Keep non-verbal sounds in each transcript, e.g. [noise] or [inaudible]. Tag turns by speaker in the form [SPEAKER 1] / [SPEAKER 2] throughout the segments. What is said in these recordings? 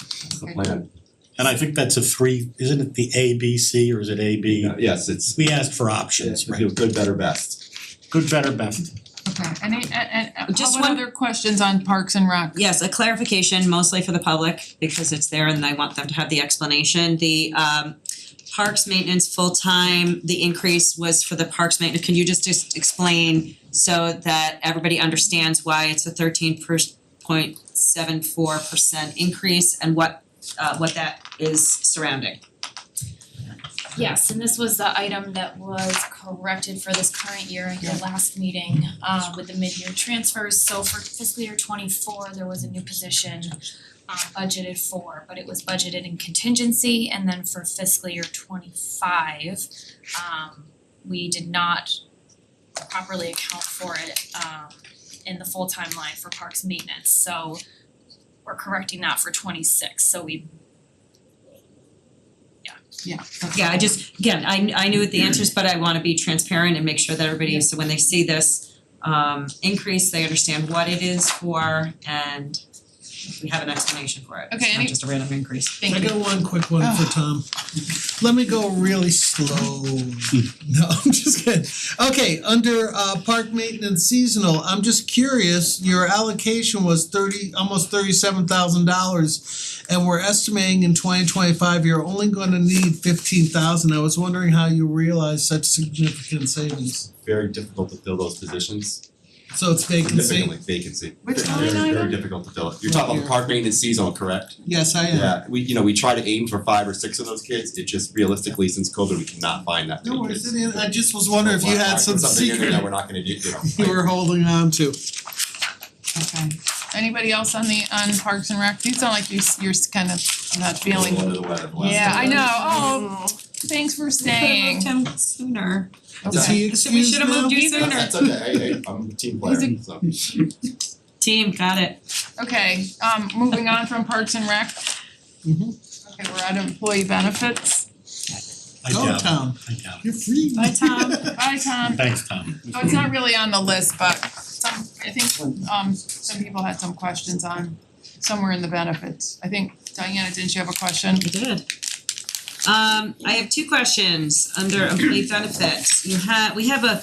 [SPEAKER 1] That's the plan.
[SPEAKER 2] And I think that's a three, isn't it the A, B, C, or is it A, B?
[SPEAKER 1] Yeah, Yes, it's,
[SPEAKER 2] We asked for
[SPEAKER 1] it's
[SPEAKER 2] options, right?
[SPEAKER 1] good, better, best.
[SPEAKER 2] Good, better, best.
[SPEAKER 3] Okay, any, and and
[SPEAKER 4] Just
[SPEAKER 3] how about
[SPEAKER 4] one-
[SPEAKER 3] other questions on Parks and Rec?
[SPEAKER 4] Yes, a clarification mostly for the public because it's there and I want them to have the explanation. The um parks maintenance full-time, the increase was for the parks maintenance. Can you just just explain so that everybody understands why it's a thirteen point seven four percent increase and what uh what that is surrounding?
[SPEAKER 5] Yes, and this was the item that was corrected for this current year in your last meeting uh with the mid-year transfers. So for fiscal year twenty-four, there was a new position uh budgeted for, but it was budgeted in contingency. And then for fiscal year twenty-five, um we did not properly account for it um in the full-time line for parks maintenance. So we're correcting that for twenty-six, so we
[SPEAKER 3] Yeah.
[SPEAKER 4] Yeah, I just, again, I I knew the answers, but I wanna be transparent and make sure that everybody, so when they see this um increase, they understand what it is for and we have an explanation for it.
[SPEAKER 3] Okay,
[SPEAKER 4] It's
[SPEAKER 3] any-
[SPEAKER 4] not just a random increase.
[SPEAKER 3] Thank
[SPEAKER 6] I
[SPEAKER 3] you.
[SPEAKER 6] got one quick one for Tom. Let me go really slow. No, [laughs] I'm just kidding. Okay, under uh park maintenance seasonal, I'm just curious, your allocation was thirty, almost thirty-seven thousand dollars. And we're estimating in twenty twenty-five, you're only gonna need fifteen thousand. I was wondering how you realized such significant savings.
[SPEAKER 1] Very difficult to fill those positions,
[SPEAKER 6] So it's vacancy?
[SPEAKER 1] significantly vacancy.
[SPEAKER 3] Which
[SPEAKER 1] Very-
[SPEAKER 3] line
[SPEAKER 1] Very,
[SPEAKER 3] item?
[SPEAKER 1] very difficult to fill it. You're talking about park maintenance seasonal, correct?
[SPEAKER 6] Yes, I am.
[SPEAKER 1] Yeah, we, you know, we try to aim for five or six of those kids, it just realistically, since COVID, we cannot find that many
[SPEAKER 6] No worries,
[SPEAKER 1] kids.
[SPEAKER 6] I didn't- I just was wondering if you had some
[SPEAKER 1] Something in there that
[SPEAKER 6] secret
[SPEAKER 1] we're not gonna do, you know.
[SPEAKER 6] [laughs] you were holding on to.
[SPEAKER 3] Okay. Anybody else on the on Parks and Rec? You sound like you s- you're s- kind of not
[SPEAKER 1] A
[SPEAKER 3] feeling.
[SPEAKER 1] little under the weather the last
[SPEAKER 3] Yeah, I
[SPEAKER 1] couple of
[SPEAKER 3] know.
[SPEAKER 1] days.
[SPEAKER 3] Oh, thanks for staying.
[SPEAKER 4] him sooner.
[SPEAKER 6] Is
[SPEAKER 3] Okay.
[SPEAKER 6] he
[SPEAKER 4] So we
[SPEAKER 6] excused
[SPEAKER 4] should have
[SPEAKER 6] now?
[SPEAKER 4] moved you
[SPEAKER 3] He's-
[SPEAKER 4] sooner.
[SPEAKER 1] That's okay, hey, hey, I'm a team player, so.
[SPEAKER 4] Team, got it.
[SPEAKER 3] Okay, um moving on from Parks and Rec.
[SPEAKER 1] Mm-hmm.
[SPEAKER 3] Okay, we're at employee benefits.
[SPEAKER 2] I
[SPEAKER 6] Go,
[SPEAKER 2] doubt it,
[SPEAKER 6] Tom.
[SPEAKER 2] I doubt
[SPEAKER 6] You're free.
[SPEAKER 4] Bye,
[SPEAKER 6] [laughs]
[SPEAKER 4] Tom. [laughs]
[SPEAKER 3] Bye, Tom.
[SPEAKER 2] it. Thanks, Tom.
[SPEAKER 3] Oh, it's not really on the list, but some, I think um some people had some questions on somewhere in the benefits. I think Diana, didn't you have a question?
[SPEAKER 4] I did. Um I have two questions under employee benefits. You have, we have a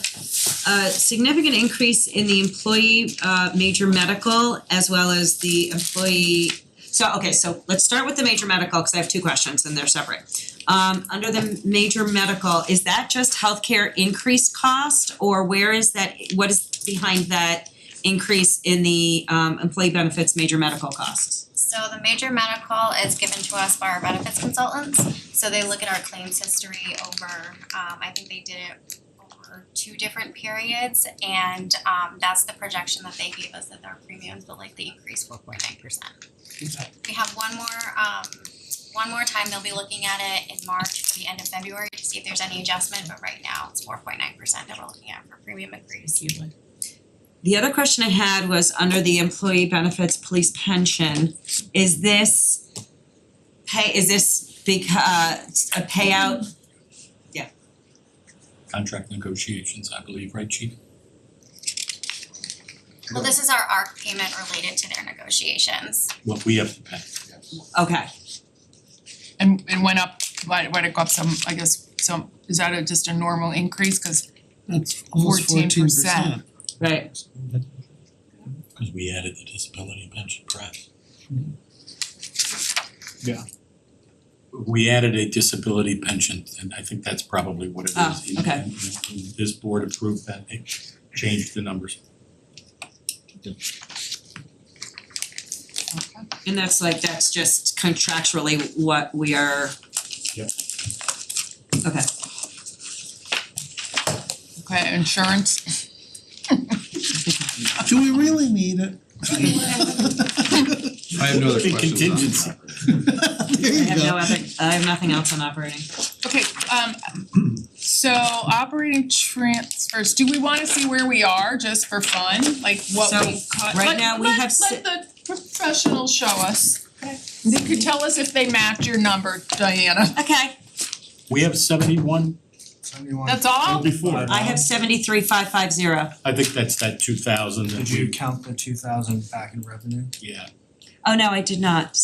[SPEAKER 4] a significant increase in the employee uh major medical as well as the employee so okay, so let's start with the major medical because I have two questions and they're separate. Um under the major medical, is that just healthcare increased cost or where is that, what is behind that increase in the um employee benefits major medical costs?
[SPEAKER 7] So the major medical is given to us by our benefits consultants, so they look at our claims history over, um, I think they did it over two different periods, and, um, that's the projection that they gave us that our premiums will likely increase four point nine percent. We have one more, um, one more time, they'll be looking at it in March for the end of February to see if there's any adjustment, but right now it's four point nine percent that we're looking at for premium increase.
[SPEAKER 4] The other question I had was under the employee benefits police pension, is this pay, is this beca- uh, a payout?
[SPEAKER 8] contract negotiations, I believe, right, chief?
[SPEAKER 7] Well, this is our ARC payment related to their negotiations.
[SPEAKER 2] What we have to pay.
[SPEAKER 4] Okay,
[SPEAKER 3] And and went up, why why did it go up some, I guess, some, is that a just a normal increase? Cause
[SPEAKER 6] That's almost
[SPEAKER 3] 14%.
[SPEAKER 6] fourteen percent.
[SPEAKER 4] right,
[SPEAKER 2] Cause we added the disability pension, correct? Mm-hmm.
[SPEAKER 8] Yeah.
[SPEAKER 2] We added a disability pension and I think that's probably what it is.
[SPEAKER 9] Ah,
[SPEAKER 4] Oh,
[SPEAKER 2] And-
[SPEAKER 4] okay.
[SPEAKER 2] and- and This board approved that, they changed the numbers.
[SPEAKER 4] and that's like, that's just contractually what we are.
[SPEAKER 2] Yep.
[SPEAKER 4] Okay,
[SPEAKER 3] okay, insurance.
[SPEAKER 6] Do we really
[SPEAKER 4] [laughs]
[SPEAKER 6] need it? [laughs]
[SPEAKER 9] I have no other
[SPEAKER 2] Big
[SPEAKER 9] questions on
[SPEAKER 2] contingency.
[SPEAKER 6] There
[SPEAKER 4] I
[SPEAKER 6] you
[SPEAKER 4] have no
[SPEAKER 6] go.
[SPEAKER 4] other, I have nothing else on operating.
[SPEAKER 3] Okay, um so operating transfers, do we wanna see where we are just for fun? Like what
[SPEAKER 4] So,
[SPEAKER 3] we cut,
[SPEAKER 4] right
[SPEAKER 3] let
[SPEAKER 4] now we
[SPEAKER 3] let
[SPEAKER 4] have
[SPEAKER 3] let the professional show us. They could tell us if they match your number, Diana.
[SPEAKER 4] Okay,
[SPEAKER 2] We have seventy-one
[SPEAKER 3] That's
[SPEAKER 9] Oh,
[SPEAKER 3] all?
[SPEAKER 2] before.
[SPEAKER 4] I
[SPEAKER 6] Um,
[SPEAKER 4] have seventy-three five five zero.
[SPEAKER 2] I think that's that two thousand that
[SPEAKER 10] Did you
[SPEAKER 2] we,
[SPEAKER 10] count the two thousand back in revenue?
[SPEAKER 2] yeah.
[SPEAKER 4] Oh, no, I did not,